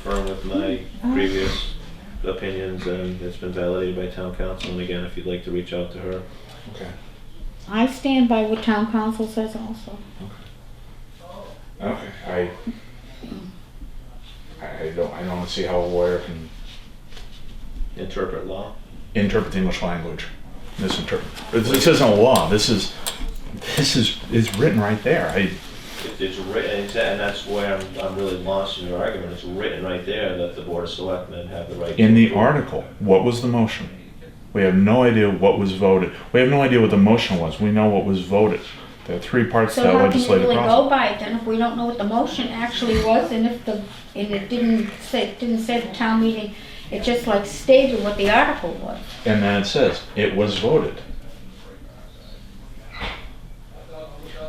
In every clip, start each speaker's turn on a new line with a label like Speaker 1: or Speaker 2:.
Speaker 1: firm with my
Speaker 2: Mm.
Speaker 1: previous opinions, and it's been validated by town council. And again, if you'd like to reach out to her,
Speaker 3: Okay.
Speaker 2: I stand by what town council says also.
Speaker 3: Okay. I. I I don't. I don't see how a lawyer can
Speaker 1: interpret law.
Speaker 3: interpret the English language. Misinterpret. This isn't a law. This is. This is. It's written right there. I.
Speaker 1: It- It's written, it's- and that's where I'm, I'm really lost in your argument. It's written right there that the board of selectmen have the right. to
Speaker 3: In the
Speaker 1: approve.
Speaker 3: article, what was the motion? We have no idea what was voted. We have no idea what the motion was. We know what was voted. There are three parts to
Speaker 2: So
Speaker 3: that
Speaker 2: how can we
Speaker 3: legislative
Speaker 2: really
Speaker 3: process.
Speaker 2: go by it then if we don't know what the motion actually was and if the, and it didn't say, it didn't say the town meeting, it just like stated what the article was.
Speaker 3: And then it says, it was voted.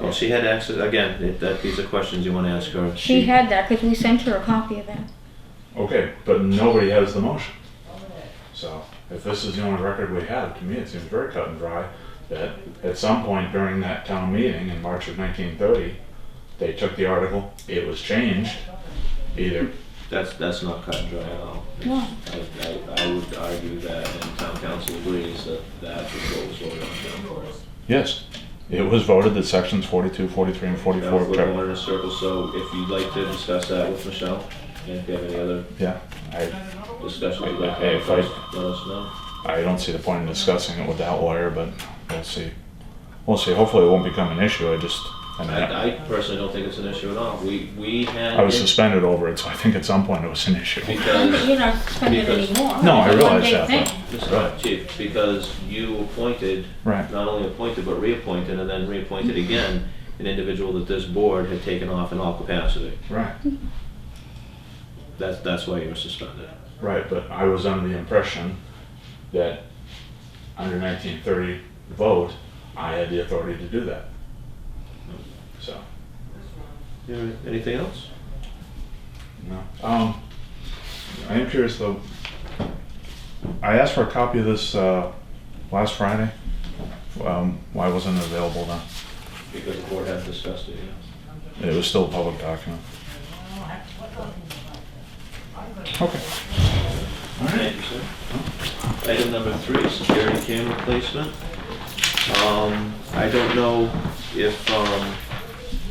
Speaker 1: Well, she had access, again, if that, these are questions you want to ask her.
Speaker 2: She had that because we sent her a copy of that.
Speaker 3: Okay, but nobody has the motion. So if this is the only record we have, to me, it seems very cut and dry that at some point during that town meeting in March of 1930, they took the article, it was changed, either,
Speaker 1: That's, that's not cut and dry at all.
Speaker 2: No.
Speaker 1: I, I, I would argue that, and town council agrees, that that is what was voted on. down below.
Speaker 3: yes, it was voted that sections 42, 43, and
Speaker 1: Now,
Speaker 3: 44.
Speaker 1: if We're going in a circle, so if you'd like to discuss that with Michelle, and if you have any other
Speaker 3: Yeah, I,
Speaker 1: discussion you'd like to
Speaker 3: Hey,
Speaker 1: have,
Speaker 3: if I-
Speaker 1: first, let us know.
Speaker 3: I don't see the point in discussing it with that lawyer, but we'll see. We'll see. Hopefully, it won't become an issue. I just, I mean, I,
Speaker 1: I, I personally don't think it's an issue at all. We, we had.
Speaker 3: I was suspended over it, so I think at some point it was an issue.
Speaker 1: Because.
Speaker 2: You're not spending
Speaker 1: Because-
Speaker 2: any more.
Speaker 3: Oh, No, I
Speaker 2: It's a
Speaker 3: realize
Speaker 2: one-day
Speaker 3: that, but-
Speaker 2: thing.
Speaker 1: Mr.
Speaker 3: Right.
Speaker 1: Chief, because you appointed,
Speaker 3: Right.
Speaker 1: not only appointed, but reappointed, and then reappointed again, an individual that this board had taken off in all capacity.
Speaker 3: Right.
Speaker 1: That's, that's why you were suspended.
Speaker 3: Right, but I was under the impression that under 1930 vote, I had the authority to do that. So,
Speaker 1: You- Anything else?
Speaker 3: no. Um, I am curious though. I asked for a copy of this uh, last Friday. Um, why wasn't it available then?
Speaker 1: Because the board had discussed it, yeah.
Speaker 3: It was still a public document. Okay.
Speaker 1: Thank you, sir. Item number three, security camera placement. Um, I don't know if, um,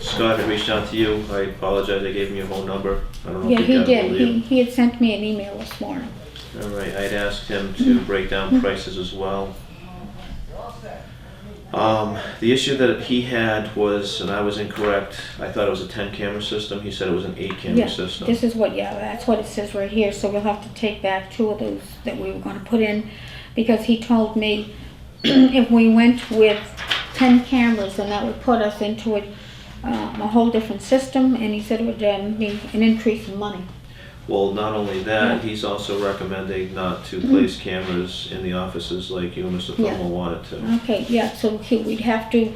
Speaker 1: Scott had reached out to you. I apologize, I gave him your whole number. I don't know
Speaker 2: Yeah,
Speaker 1: if he
Speaker 2: he
Speaker 1: got
Speaker 2: did.
Speaker 1: ahold of you.
Speaker 2: He, he had sent me an email this morning.
Speaker 1: All right, I'd asked him to break down prices as well. Um, the issue that he had was, and I was incorrect, I thought it was a ten camera system, he said it was an eight
Speaker 2: Yeah,
Speaker 1: camera system.
Speaker 2: this is what, yeah, that's what it says right here, so we'll have to take back two of those that we were gonna put in, because he told me if we went with ten cameras, then that would put us into a, um, a whole different system, and he said it would, um, be an increase in money.
Speaker 1: Well, not only that, he's also recommending not to place cameras in the offices like you and Mr.
Speaker 2: Yeah.
Speaker 1: Thomo wanted to.
Speaker 2: Okay, yeah, so he, we'd have to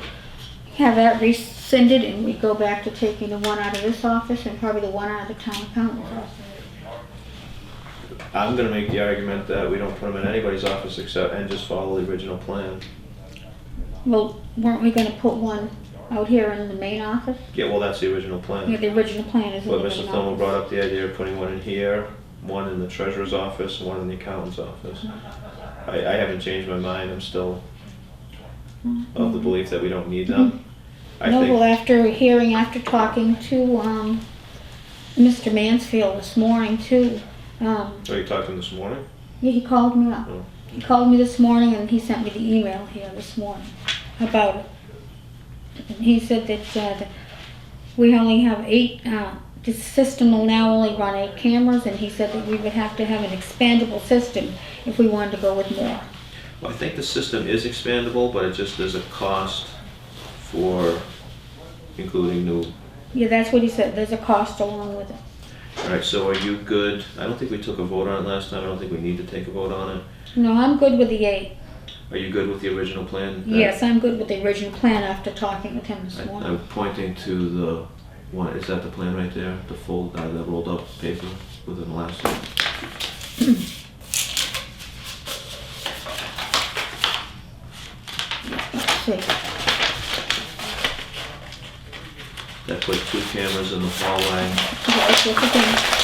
Speaker 2: have that rescinded, and we'd go back to taking the one out of this office and probably the one out of the town accountant's office.
Speaker 1: I'm gonna make the argument that we don't put them in anybody's office except, and just follow the original plan.
Speaker 2: Well, weren't we gonna put one out here in the main office?
Speaker 1: Yeah, well, that's the original plan.
Speaker 2: Yeah, the original plan is in the
Speaker 1: But
Speaker 2: main
Speaker 1: Mr.
Speaker 2: office.
Speaker 1: Thomo brought up the idea of putting one in here, one in the treasurer's office, one in the accountant's office. I, I haven't changed my mind, I'm still of the belief that we don't need them. I
Speaker 2: No, well,
Speaker 1: think,
Speaker 2: after hearing, after talking to, um, Mr. Mansfield this morning too, um,
Speaker 1: oh, you talked to him this morning?
Speaker 2: yeah, he called me up.
Speaker 1: Oh.
Speaker 2: He called me this morning and he sent me the email here this morning about it. And he said that, uh, that we only have eight, uh, the system will now only run eight cameras and he said that we would have to have an expandable system if we wanted to go with more.
Speaker 1: Well, I think the system is expandable, but it just, there's a cost for including new.
Speaker 2: Yeah, that's what he said, there's a cost along with it.
Speaker 1: Alright, so are you good? I don't think we took a vote on it last time, I don't think we need to take a vote on it.
Speaker 2: No, I'm good with the eight.
Speaker 1: Are you good with the original plan?
Speaker 2: Yes, I'm good with the original plan after talking with him this
Speaker 1: I-
Speaker 2: morning.
Speaker 1: I'm pointing to the, one, is that the plan right there, the fold, uh, the rolled up paper with an elastic?
Speaker 2: See,
Speaker 1: That put two cameras in the hallway,
Speaker 2: yes, yes, again,